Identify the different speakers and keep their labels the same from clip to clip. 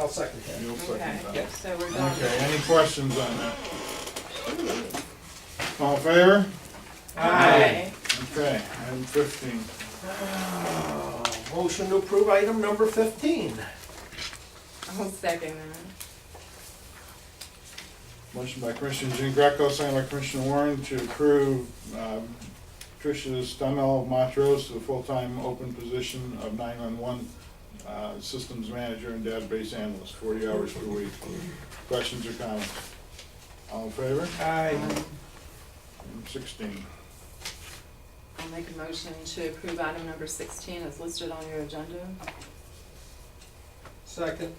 Speaker 1: I'll second that.
Speaker 2: You'll
Speaker 3: Okay,
Speaker 2: second that.
Speaker 3: so we're
Speaker 2: Okay,
Speaker 3: going,
Speaker 2: any questions on that? All in favor?
Speaker 3: aye,
Speaker 2: Okay, item fifteen.
Speaker 1: Uh, Motion to approve item number fifteen.
Speaker 3: I'll second that.
Speaker 2: Motion by Commissioner Jean Greco, second by Commissioner Warren to approve um, Tricia Stumel Montrose to the full-time open position of nine-one-one uh, Systems Manager and Database Analyst, forty hours per week. Questions or comments? All in favor?
Speaker 3: Um,
Speaker 1: Aye.
Speaker 2: Item Sixteen.
Speaker 3: I'll make a motion to approve item number sixteen as listed on your agenda.
Speaker 1: Second.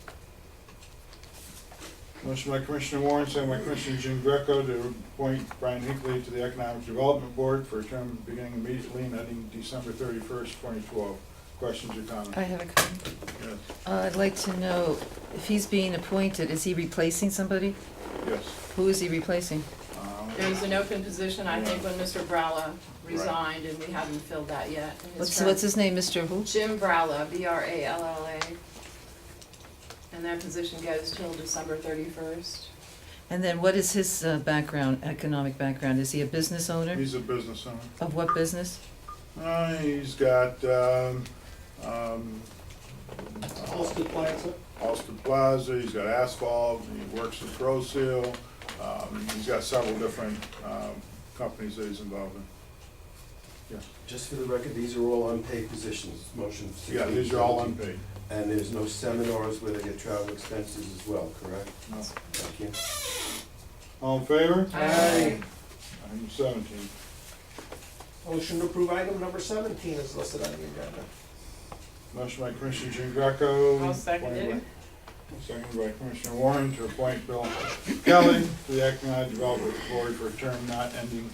Speaker 2: Motion by Commissioner Warren, second by Commissioner Jean Greco to appoint Brian Hinckley to the Economic Development Board for a term beginning immediately and ending December thirty-first, twenty twelve. Questions or comments?
Speaker 4: I have a comment.
Speaker 2: Yes.
Speaker 4: Uh, I'd like to know, if he's being appointed, is he replacing somebody?
Speaker 2: Yes.
Speaker 4: Who is he replacing?
Speaker 2: Um,
Speaker 3: There was an open position, I think, when Mr. Bralla resigned, and we haven't filled that yet. in his
Speaker 4: What's,
Speaker 3: term.
Speaker 4: what's his name, Mr. Who?
Speaker 3: Jim Bralla, B R A L L A. And that position goes till December thirty-first.
Speaker 4: And then what is his uh, background, economic background? Is he a business owner?
Speaker 2: He's a business owner.
Speaker 4: Of what business?
Speaker 2: Uh, he's got, um, um,
Speaker 1: Austin Plaza.
Speaker 2: Austin Plaza, he's got asphalt, he works at Pro Seal. Um, he's got several different, um, companies that he's involved in.
Speaker 5: Just for the record, these are all unpaid positions, motion sixteen.
Speaker 2: Yeah, these are all
Speaker 5: 17.
Speaker 2: unpaid.
Speaker 5: And there's no seminars where they get travel expenses as well, correct?
Speaker 2: No.
Speaker 5: Thank you.
Speaker 2: All in favor?
Speaker 1: Aye.
Speaker 2: Item seventeen.
Speaker 1: Motion to approve item number seventeen is listed on the agenda.
Speaker 2: Motion by Commissioner Jean Greco.
Speaker 3: I'll second it.
Speaker 2: appointed by- Seconded by Commissioner Warren to appoint Bill Kelly to the Economic Development Board for a term not ending,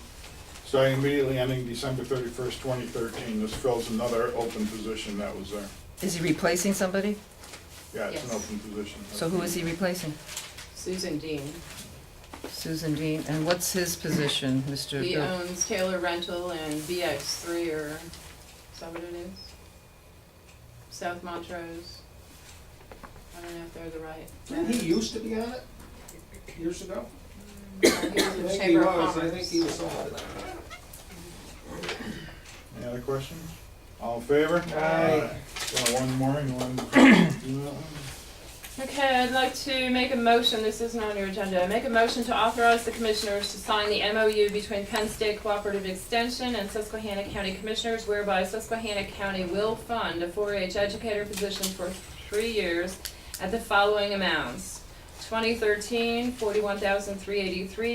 Speaker 2: starting immediately ending December thirty-first, twenty thirteen. This fills another open position that was there.
Speaker 4: Is he replacing somebody?
Speaker 2: Yeah, it's an
Speaker 3: Yes.
Speaker 2: open position.
Speaker 4: So who is he replacing?
Speaker 3: Susan Dean.
Speaker 4: Susan Dean, and what's his position, Mr.
Speaker 3: He uh,
Speaker 4: Bill?
Speaker 3: owns Taylor Rental and BX three or, is that what it is? South Montrose. I don't know if they're the right.
Speaker 1: Didn't he used to be on it years ago?
Speaker 3: He
Speaker 1: I
Speaker 3: was in
Speaker 1: think he
Speaker 3: Chamber of
Speaker 1: was, I think
Speaker 3: Commerce.
Speaker 1: he was on it.
Speaker 2: Any other questions? All in favor?
Speaker 1: Aye.
Speaker 2: Uh, One more, you want to do that one?
Speaker 3: Okay, I'd like to make a motion, this isn't on your agenda, make a motion to authorize the commissioners to sign the MOU between Penn State Cooperative Extension and Susquehanna County Commissioners whereby Susquehanna County will fund a four-H educator position for three years at the following amounts. 2013, 41,383; 2014, 43,109; 2015, 43,109; 2016, 41,383;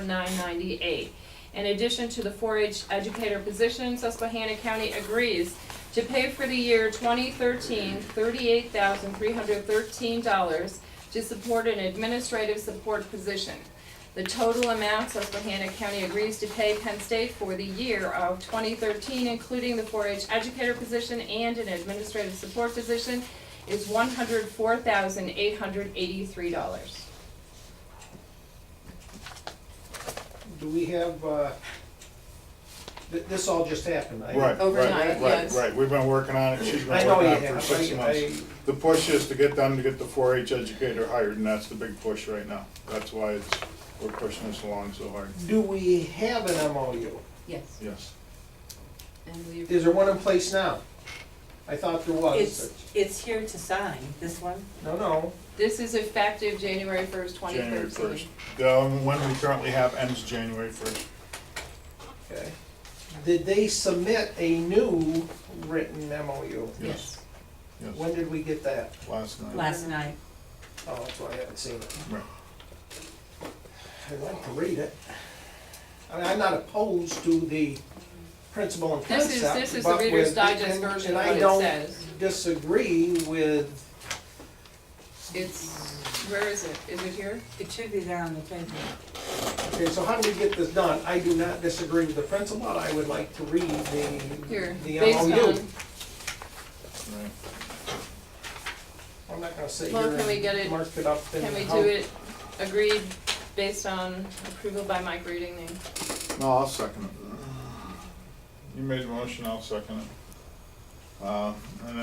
Speaker 3: nine ninety-eight. In addition to the four-H educator position, Susquehanna County agrees to pay for the year 2013, $38,313 to support an administrative support position. The total amount Susquehanna County agrees to pay Penn State for the year of 2013, including the 4-H educator position and an administrative support position, is $104,883.
Speaker 1: Do we have, uh, th- this all just happened, I.
Speaker 2: Right, right,
Speaker 3: Overnight,
Speaker 2: right,
Speaker 3: yes.
Speaker 2: right, we've been working on it, she's
Speaker 1: I
Speaker 2: been
Speaker 1: know
Speaker 2: working
Speaker 1: you
Speaker 2: on it for
Speaker 1: have,
Speaker 2: six
Speaker 1: I, I,
Speaker 2: months. The push is to get them to get the four H educator hired, and that's the big push right now. That's why it's, we're pushing this along so hard,
Speaker 1: do we have an MOU?
Speaker 3: Yes.
Speaker 2: yes.
Speaker 3: And we
Speaker 1: Is there one in place now? I thought there was.
Speaker 6: It's, it's here to sign, this one.
Speaker 1: No, no,
Speaker 3: This is effective January 1st, 2013.
Speaker 2: January first. The um, one we currently have ends January first.
Speaker 1: okay. Did they submit a new written MOU?
Speaker 2: Yes.
Speaker 3: Yes.
Speaker 2: Yes,
Speaker 1: When did we get that?
Speaker 2: last night.
Speaker 6: Last night,
Speaker 1: Oh, that's why I haven't seen it.
Speaker 2: Right.
Speaker 1: I'd like to read it. I mean, I'm not opposed to the principle and
Speaker 3: This is,
Speaker 1: concept.
Speaker 3: this is the
Speaker 1: but
Speaker 3: Reader's
Speaker 1: with-
Speaker 3: Digest
Speaker 1: and-
Speaker 3: version
Speaker 1: and
Speaker 3: of
Speaker 1: I
Speaker 3: what it
Speaker 1: don't
Speaker 3: says.
Speaker 1: Disagree with,
Speaker 3: It's, where is it? Is it here?
Speaker 6: it should be there on the paper.
Speaker 1: okay, so how do we get this done? I do not disagree with the principle, I would like to read the,
Speaker 3: Here,
Speaker 1: the uh, oh,
Speaker 3: based on,
Speaker 1: MOU.
Speaker 2: Right.
Speaker 1: I'm not gonna sit
Speaker 3: Well,
Speaker 1: here
Speaker 3: can we get it-
Speaker 1: and mark it up and.
Speaker 3: can we
Speaker 1: how-
Speaker 3: do it agreed based on approval by Mike reading the
Speaker 2: No, I'll second it. You made the motion, I'll second it. Uh, And